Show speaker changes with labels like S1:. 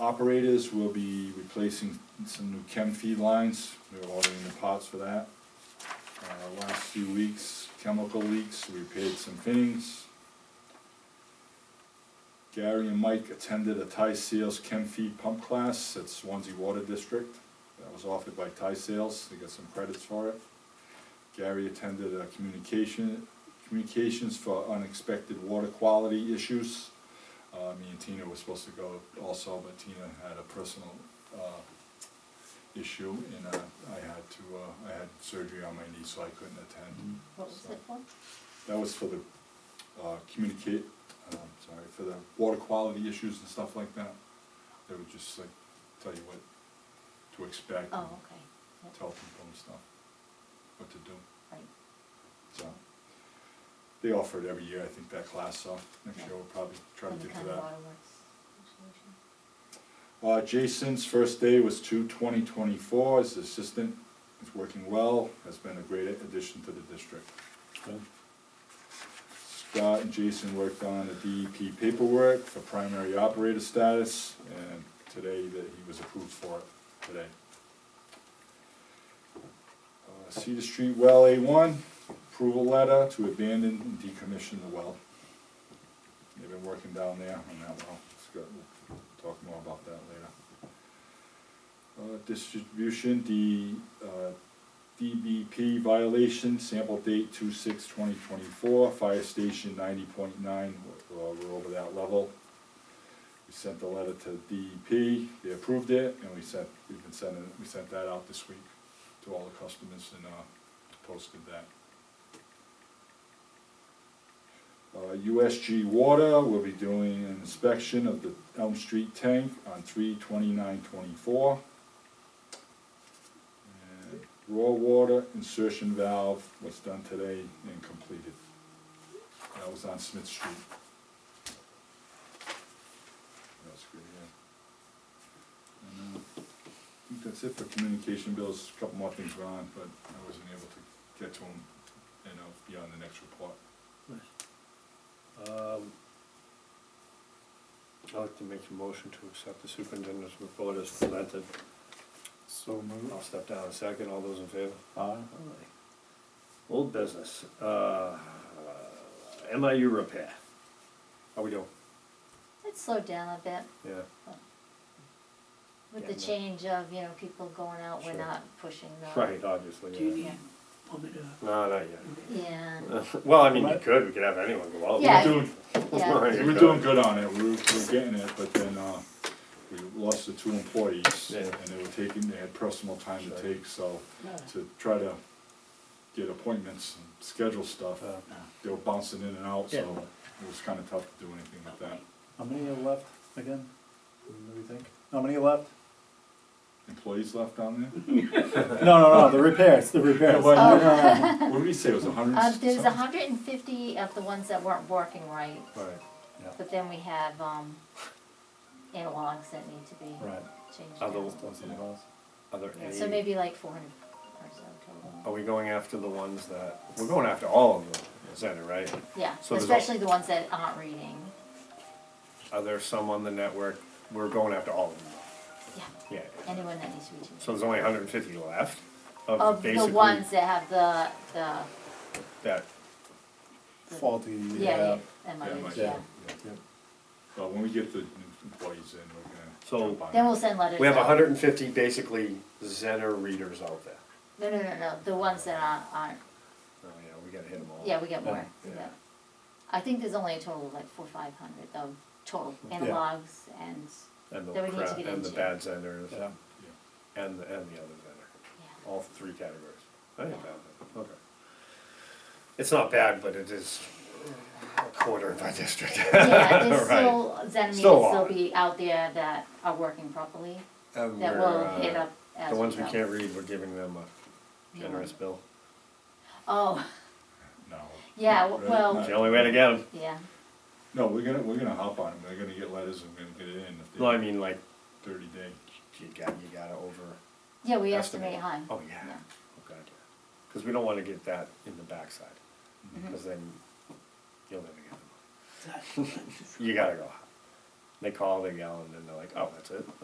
S1: operators will be replacing some new chem feed lines, we're ordering the parts for that. Uh, last few weeks, chemical leaks, we repaired some fittings. Gary and Mike attended a Ty Sales Chem Feed Pump class at Swansea Water District. That was offered by Ty Sales, they got some credits for it. Gary attended a communication, communications for unexpected water quality issues. Uh, me and Tina were supposed to go also, but Tina had a personal, uh, issue and, uh, I had to, uh, I had surgery on my knee, so I couldn't attend.
S2: What was it for?
S1: That was for the, uh, communicate, um, sorry, for the water quality issues and stuff like that. They would just like tell you what to expect
S2: Oh,
S1: and
S2: okay. Yep,
S1: tell people and stuff, what to do.
S2: right.
S1: So, they offer it every year, I think, that class, so next year we'll probably try to
S2: From the
S1: get to
S2: County
S1: that.
S2: Water Works Association.
S1: Uh, Jason's first day was two twenty twenty-four, his assistant is working well, has been a great addition to the district. Scott and Jason worked on the DEP paperwork for primary operator status, and today that he was approved for it, today. Uh, Cedar Street Well A one, approval letter to abandon and decommission the well. They've been working down there on that well, it's good, we'll talk more about that later. Uh, distribution, the, uh, DBP violation, sample date two six twenty twenty-four, fire station ninety point nine, we're over that level. We sent the letter to DEP, they approved it, and we sent, we've been sending, we sent that out this week to all the customers and, uh, posted that. Uh, USG Water will be doing an inspection of the Elm Street tank on three twenty-nine twenty-four. And Raw water insertion valve was done today and completed. That was on Smith Street. That's good, yeah. And, uh, I think that's it for communication bills, a couple more things were on, but I wasn't able to get to them, you know, beyond the next report.
S3: Um, I'd like to make a motion to accept the superintendent's report as presented.
S4: So moved.
S3: I'll step down a second, all those in favor?
S4: Aye.
S3: Old business, uh, MIU repair. How we doing?
S2: It slowed down a bit
S3: Yeah,
S2: with the
S3: Yeah, no.
S2: change of, you know, people going out, we're
S3: Sure.
S2: not pushing the.
S3: right, obviously,
S5: Do you
S3: yeah.
S5: need, want me to?
S3: No, not yet.
S2: Yeah,
S3: Well, I mean, you could, we could have anyone go out.
S2: Yeah.
S1: We're doing,
S2: yeah,
S3: Right, you
S1: we're
S3: could.
S1: doing good on it, we were, we were getting it, but then, uh, we lost the two employees,
S3: Yeah.
S1: and they were taking, they had personal time to
S3: Sure.
S1: take, so,
S5: No.
S1: to try to get appointments and schedule stuff,
S3: Uh,
S1: they were bouncing in and out, so
S4: Yeah.
S1: it was kinda tough to do anything with that.
S4: How many are left again? What do we think? How many are left?
S1: Employees left down there?
S4: No, no, no, the repairs, the repairs.
S1: Well,
S4: No, no, no.
S3: Oh.
S1: What did we say, it was a hundred
S2: Uh,
S1: and
S2: there's
S1: something?
S2: hundred and fifty of the ones that weren't working right,
S3: Right,
S4: Yeah,
S2: but then we have, um, analogs that need to be
S4: right.
S2: changed
S3: Other
S2: down.
S3: ones.
S4: Those are the ones.
S3: are there
S2: Yeah,
S3: any?
S2: So maybe like four hundred or so total.
S3: Are we going after the ones that, we're going after all of them, center, right?
S2: Yeah,
S3: So there's al-
S2: especially the ones that aren't reading,
S3: Are there some on the network, we're going after all of them,
S2: yeah,
S3: yeah.
S2: anyone that needs to be changed.
S3: So there's only hundred and fifty left of
S2: Of the
S3: basically
S2: ones that have the, the,
S3: that,
S4: Faulty,
S2: yeah,
S4: yeah.
S2: and
S1: Yeah,
S2: mileage,
S1: like,
S2: yeah.
S1: yeah.
S4: Yep.
S1: But when we get the new employees in, we're gonna.
S3: So-
S1: jump on
S2: Then
S1: it.
S2: we'll send letters.
S3: we have
S2: out.
S3: hundred and fifty basically Zener readers out there.
S2: No, no, no, no, the ones that aren't, aren't,
S3: Oh, yeah, we gotta hit them all.
S2: yeah, we get more,
S3: Yeah.
S2: yeah. I think there's only a total of like four, five hundred of total
S4: Yeah.
S2: analogs and,
S3: And the
S2: that we need to
S3: crap,
S2: get
S3: and the
S2: into.
S3: bad Zeners,
S4: Yeah.
S1: Yeah.
S3: and the, and the other Zener,
S2: yeah,
S3: all three categories. I think
S2: Yeah.
S3: bad, okay. It's not bad, but it is a quarter of our district.
S2: yeah, there's
S3: Right.
S2: still, Zen meetings
S3: Still
S2: will
S3: on.
S2: be out there that are working properly,
S3: And
S2: that
S3: we're,
S2: will
S3: uh,
S2: hit up as we
S3: The ones we
S2: go.
S3: can't read, we're giving them a
S2: Yeah.
S3: generous bill.
S2: Oh,
S1: No.
S2: yeah,
S1: Right.
S2: well,
S3: It's the only way to get them.
S2: yeah,
S1: No, we're gonna, we're gonna hop on it, we're gonna get letters and we're gonna get it in if
S3: No, I
S1: they,
S3: mean, like,
S1: thirty day.
S3: you got, you gotta over.
S2: yeah, we estimate high,
S3: Oh, yeah.
S2: yeah,
S3: Oh, God, yeah. Because we don't want to get that in the backside. Because then you'll never get the money. You gotta go. high. They call, they yell, and then they're like, oh, that's it?